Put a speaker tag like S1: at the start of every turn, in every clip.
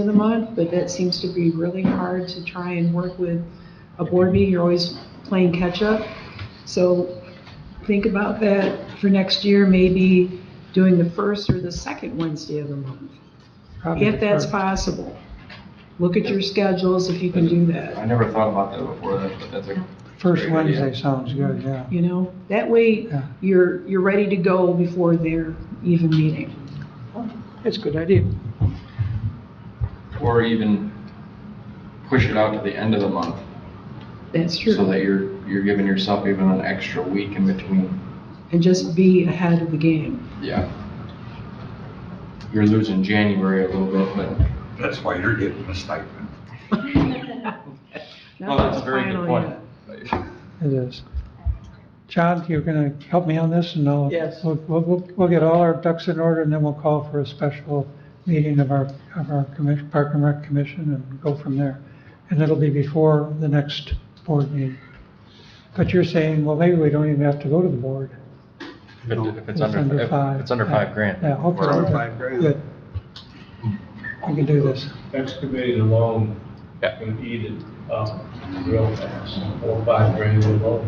S1: of the month, but that seems to be really hard to try and work with a board meeting. You're always playing catch-up. So think about that for next year, maybe doing the first or the second Wednesday of the month,
S2: Probably
S1: if that's
S2: prefer-
S1: possible. Look at your schedules if you can do
S3: I
S1: that,
S3: never thought about that before, that- but that's a,
S2: First
S3: Great idea.
S2: Wednesday sounds good, yeah.
S1: you know? That way,
S2: Yeah.
S1: you're, you're ready to go before their even meeting.
S2: It's a good idea.
S3: or even push it out to the end of the month,
S1: That's true.
S3: so that you're, you're giving yourself even an extra week in between,
S1: and just be ahead of the game.
S3: yeah. You're losing January a little bit, but,
S4: That's why you're getting a stipend.
S3: no, Oh, that's a very good
S1: Finally,
S3: point.
S2: It is. John, you're going to help me on this and I'll.
S5: Yes.
S2: We'll, we'll- we'll, we'll get all our ducks in order and then we'll call for a special meeting of our, of our commission, Park and Rec Commission and go from there. And it'll be before the next board meeting. But you're saying, well, maybe we don't even have to go to the board.
S6: If it- if it's
S2: It's
S6: under,
S2: under
S6: if
S2: five.
S6: it's under five grand.
S2: Yeah, okay.
S6: we're-
S2: okay,
S5: five grand.
S2: Good. We can do this.
S7: excavated alone
S6: Yeah.
S7: can eat it up real fast, four, or five grand alone.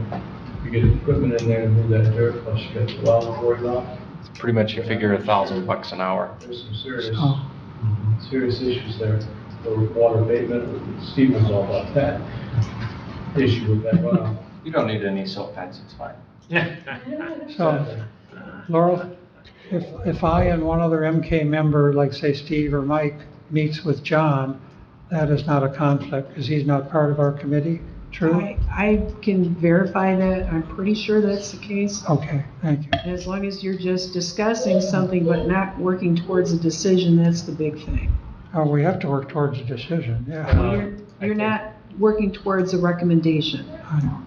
S7: You get equipment in there and move that dirt, plus you got the well pouring off.
S6: it's Pretty much you figure a thousand bucks an hour.
S7: There's some serious,
S2: Oh.
S7: serious issues there for water abatement. Steve was all about that issue with that runoff.
S3: You don't need any silk fence, it's fine.
S2: So.
S8: Oh.
S2: Laurel, if, if I and one other MK member, like say Steve or Mike, meets with John, that is not a conflict because he's not part of our committee, true?
S1: I, I can verify that, I'm pretty sure that's the case.
S2: Okay, thank you.
S1: And as long as you're just discussing something but not working towards a decision, that's the big thing.
S2: Oh, we have to work towards a decision, yeah.
S6: Uh,
S1: You're,
S6: I
S1: you're
S6: think-
S1: not working towards a recommendation.
S2: I know.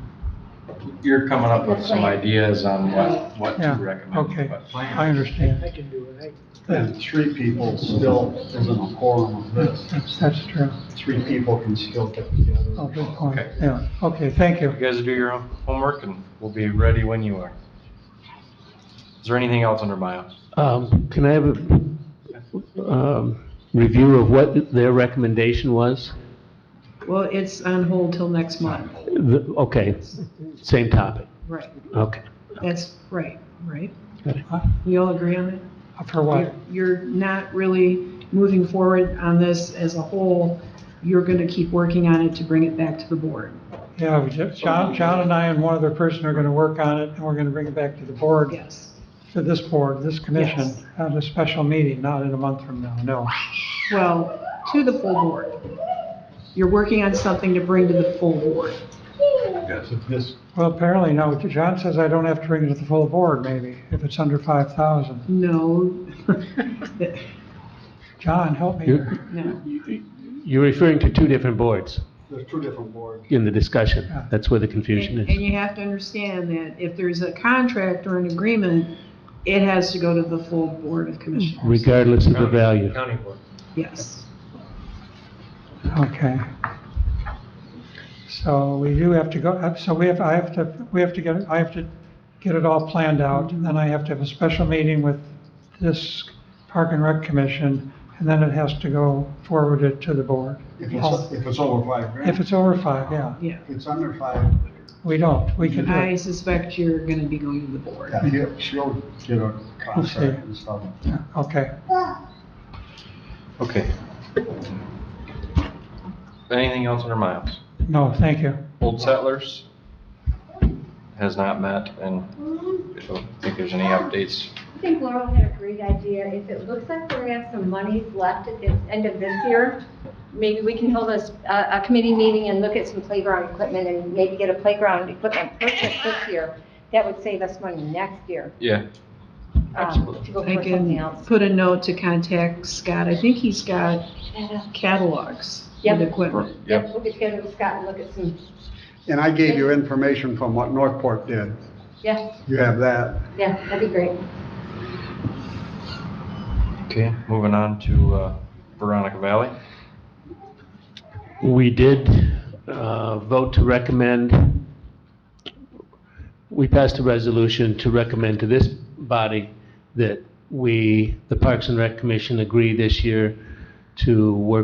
S3: You're coming up with some ideas on what, what to
S2: Yeah,
S3: recommend.
S2: okay.
S3: but-
S2: I understand.
S5: I can do it.
S8: And three people still isn't a quorum of this.
S2: That's, that's true.
S8: Three people can still get together.
S2: Oh, good point.
S6: Okay.
S2: Yeah, okay, thank you.
S6: You guys do your own homework and we'll be ready when you are. Is there anything else under my office?
S9: Um, Can I have a um, review of what their recommendation was?
S1: Well, it's on hold till next month.
S9: The- Okay, same topic,
S1: Right,
S9: okay.
S1: that's right, right?
S2: Huh?
S1: We all agree on that?
S2: Uh, For what?
S1: You're not really moving forward on this as a whole. You're going to keep working on it to bring it back to the board.
S2: Yeah, we ju- John, John and I and one other person are going to work on it and we're going to bring it back to the board,
S1: Yes.
S2: to this board, this commission,
S1: Yes.
S2: at a special meeting, not in a month from now, no.
S1: Well, to the full board. You're working on something to bring to the full board.
S4: Yes.
S8: This,
S2: Well, apparently, no. John says I don't have to bring it to the full board, maybe, if it's under 5,000.
S1: No.
S2: John, help me
S9: You're-
S2: here.
S1: No.
S9: You're referring to two different boards
S8: there's two different boards.
S9: in the discussion.
S2: Yeah.
S9: That's where the confusion
S1: And and
S9: is.
S1: you have to understand that if there's a contract or an agreement, it has to go to the full board of commissioners.
S9: Regardless of the value.
S6: County board.
S1: Yes.
S2: Okay. So we do have to go, uh, so we have, I have to, we have to get, I have to get it all planned out, and then I have to have a special meeting with this Park and Rec Commission, and then it has to go forwarded to the board.
S8: If it's, if it's over five
S2: If
S8: grand, if
S2: it's over five, yeah.
S1: Yeah.
S8: it's under five,
S2: We don't, we can do
S1: I
S2: it.
S1: suspect you're going to be going to the board.
S8: yeah, he'll- she'll get a contract and stuff.
S2: Yeah, Okay.
S6: Okay. Anything else under my office?
S2: No, thank you.
S6: Old Settlers has not met and I don't think there's any updates.
S10: I think Laurel had a great idea. If it looks like we're gonna have some monies left at the end of this year, maybe we can hold a, s- a- a committee meeting and look at some playground equipment and maybe get a playground equipment purchase this year. That would save us money next year,
S6: Yeah,
S10: um, to go
S1: I
S10: for something
S1: can
S10: else.
S1: put a note to contact Scott. I think he's got catalogs with
S10: Yep.
S1: equipment.
S6: yep.
S10: We'll get together with Scott and look at some,
S8: And I gave you information from what Northport did.
S10: yeah,
S8: You have that.
S10: yeah, that'd be great.
S6: Okay, moving on to uh, Veronica Valley.
S9: We did uh, vote to recommend, we passed a resolution to recommend to this body that we, the Parks and Rec Commission, agree this year to work